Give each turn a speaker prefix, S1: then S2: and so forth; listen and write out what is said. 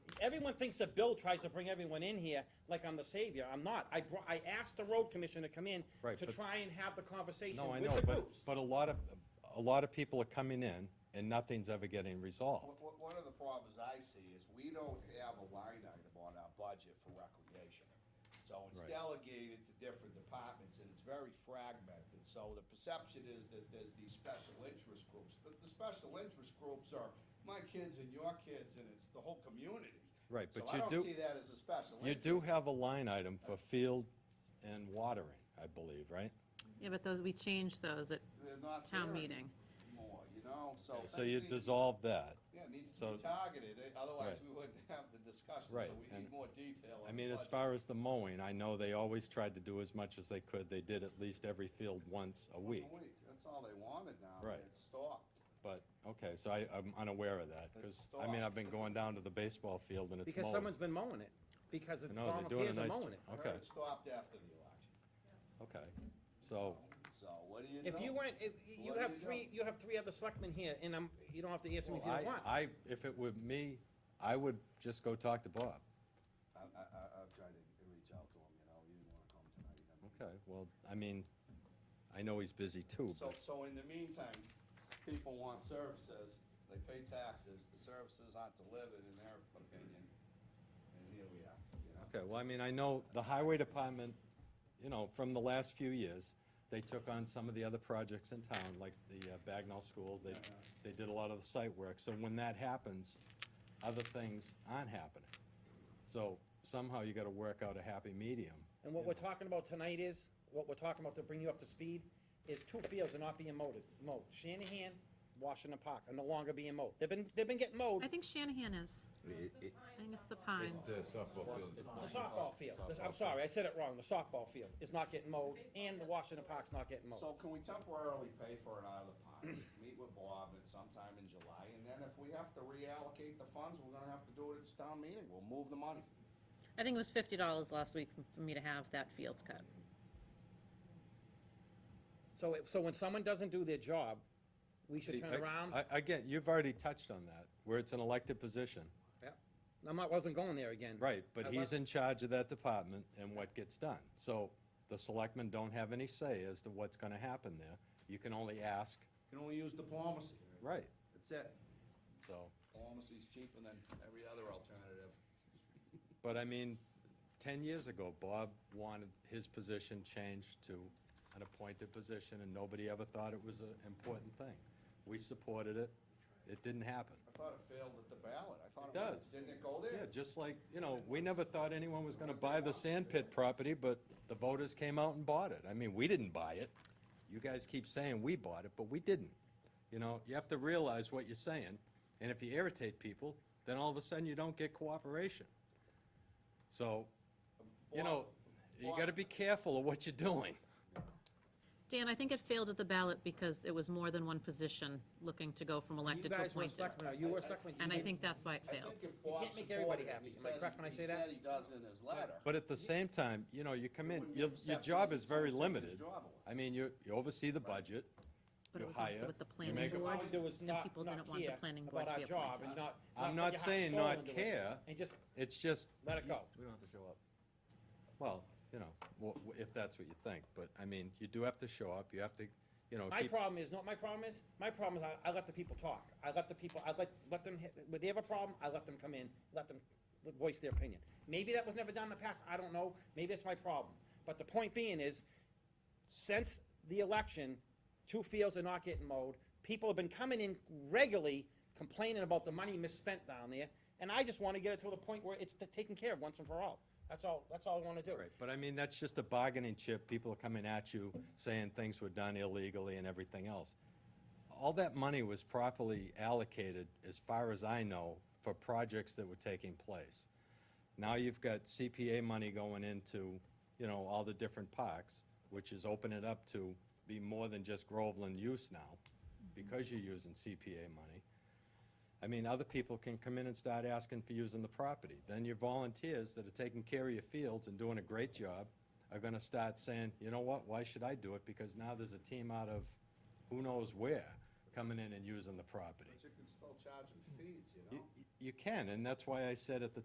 S1: everyone thinks that Bill tries to bring everyone in here like I'm the savior. I'm not. I brought, I asked the road commissioner to come in
S2: Right,
S1: to
S2: but-
S1: try and have the conversation
S2: No, I
S1: with
S2: know,
S1: the
S2: but,
S1: groups.
S2: but a lot of, a lot of people are coming in and nothing's ever getting resolved.
S3: One- One of the problems I see is we don't have a line item on our budget for recreation. So it's
S2: Right.
S3: delegated to different departments and it's very fragmented. So the perception is that there's these special interest groups. But the special interest groups are my kids and your kids and it's the whole community.
S2: Right, but
S3: So
S2: you
S3: I
S2: do-
S3: don't see that as a special
S2: You
S3: interest.
S2: do have a line item for field and watering, I believe, right?
S4: Yeah, but those, we changed those at
S3: They're not
S4: town
S3: there
S4: meeting.
S3: anymore, you know, so.
S2: So
S3: things
S2: you
S3: need-
S2: dissolve that.
S3: Yeah, it needs to
S2: so-
S3: be targeted, eh, otherwise
S2: Right.
S3: we wouldn't have the discussion.
S2: Right,
S3: So we
S2: and-
S3: need more detail
S2: I
S3: on the
S2: mean, as
S3: budget.
S2: far as the mowing, I know they always tried to do as much as they could. They did at least every field once a
S3: Once
S2: week.
S3: a week. That's all they wanted now.
S2: Right.
S3: and It stopped.
S2: But, okay, so I, I'm unaware of that, because, I mean, I've been going down to the baseball field and it's
S1: Because
S2: mowed.
S1: someone's been mowing it, because the
S2: No, they're doing a
S1: volunteers are
S2: nice,
S1: mowing it.
S3: I heard
S2: okay,
S3: It stopped after the election.
S2: okay. So,
S3: So what do you know?
S1: If you weren't, if, you
S3: What do
S1: have
S3: you know?
S1: three, you have three other selectmen here, and I'm, you don't have to answer me if you
S2: I,
S1: don't want.
S2: I, if it were me, I would just go talk to Bob.
S3: I, I, I, I've tried to reach out to him, you know, he didn't wanna come tonight. he didn't-
S2: Okay, well, I mean, I know he's busy too,
S3: So,
S2: but,
S3: so in the meantime, people want services, they pay taxes, the services aren't delivered in their opinion, and here we are, you know?
S2: okay, well, I mean, I know the highway department, you know, from the last few years, they took on some of the other projects in town, like the uh, Bagnell School, they, they did a lot of the site work, so when that happens, other things aren't happening. So somehow you gotta work out a happy medium.
S1: And what we're talking about tonight is, what we're talking about to bring you up to speed, is two fields are not being mowed, mowed. Shanahan, Washington Park are no longer being mowed. They've been, they've been getting mowed,
S4: I think Shanahan is.
S5: It- it-
S4: I think it's the Pines.
S5: It's the softball field.
S1: the softball field, I'm sorry, I said it wrong, the softball field is not getting mowed, and the Washington Park's not getting mowed.
S3: So can we temporarily pay for it out of the ponds, meet with Bob at sometime in July, and then if we have to reallocate the funds, we're gonna have to do it at town meeting, we'll move the money.
S4: I think it was fifty dollars last week for me to have that fields cut.
S1: So, if- so when someone doesn't do their job, we should
S2: I-
S1: turn around.
S2: I- Again, you've already touched on that, where it's an elected position.
S1: Yep. I'm not, wasn't going there again.
S2: Right, but
S1: I
S2: he's
S1: wasn't.
S2: in charge of that department and what gets done. So the selectmen don't have any say as to what's gonna happen there. You can only ask,
S3: You can only use diplomacy.
S2: right,
S3: That's it.
S2: so,
S3: Diplomacy's cheaper than every other alternative.
S2: but I mean, ten years ago, Bob wanted his position changed to an appointed position and nobody ever thought it was an important thing. We supported it, it didn't happen.
S3: I thought it failed at the ballot. I thought
S2: It
S3: it was,
S2: does.
S3: didn't it go
S2: Yeah,
S3: there?
S2: just like, you know, we never thought anyone was gonna buy the sand pit property, but the voters came out and bought it. I mean, we didn't buy it. You guys keep saying we bought it, but we didn't. You know, you have to realize what you're saying, and if you irritate people, then all of a sudden you don't get cooperation. So, you know, you gotta be careful of what you're doing.
S4: Dan, I think it failed at the ballot because it was more than one position looking to go from
S1: You
S4: elected to
S1: guys were
S4: appointed.
S1: selectmen, you were selectmen. you
S4: And I
S1: didn't-
S4: think that's why it
S3: I
S4: failed.
S3: think if Bob
S1: can't make everybody
S3: supported it,
S1: happy.
S3: he
S1: Am I
S3: said,
S1: correct when I
S3: he
S1: say that?
S3: said he does in his letter.
S2: But at the same time, you know, you come in,
S3: wouldn't
S2: your,
S3: give
S2: your
S3: perception
S2: job
S3: that
S2: is very
S3: someone took
S2: limited.
S3: his job away.
S2: I mean, you, you oversee the budget,
S4: But
S2: you
S4: it was also
S2: hire,
S4: with the
S2: you
S4: planning
S2: make a-
S4: board,
S1: All we do is
S4: and
S1: not-
S4: people
S1: not
S4: didn't want the
S1: care
S4: planning board to
S1: about
S4: be
S1: our job and
S4: appointed.
S1: not-
S2: I'm
S1: put
S2: not
S1: your heart
S2: saying
S1: and soul
S2: not
S1: into it,
S2: care.
S1: And just
S2: it's just,
S1: let it go.
S5: We don't have to show up.
S2: Well, you know, wha- wha- if that's what you think, but I mean, you do have to show up, you have to, you know,
S1: My
S2: keep,
S1: problem is, not my problem is, my problem is I, I let the people talk. I let the people, I let, let them, hit- when they have a problem, I let them come in, let them voice their opinion. Maybe that was never done in the past, I don't know, maybe that's my problem. But the point being is, since the election, two fields are not getting mowed. People have been coming in regularly complaining about the money misspent down there, and I just wanna get it to the point where it's t- taken care of once and for all. That's all, that's all I wanna do.
S2: right, but I mean, that's just a bargaining chip, people are coming at you saying things were done illegally and everything else. All that money was properly allocated, as far as I know, for projects that were taking place. Now you've got CPA money going into, you know, all the different parks, which is opening it up to be more than just Groveland use now, because you're using CPA money. I mean, other people can come in and start asking for using the property. Then your volunteers that are taking care of your fields and doing a great job are gonna start saying, you know what, why should I do it? Because now there's a team out of who knows where coming in and using the property.
S3: But you can still charge them fees, you know?
S2: You- You can, and that's why I said at the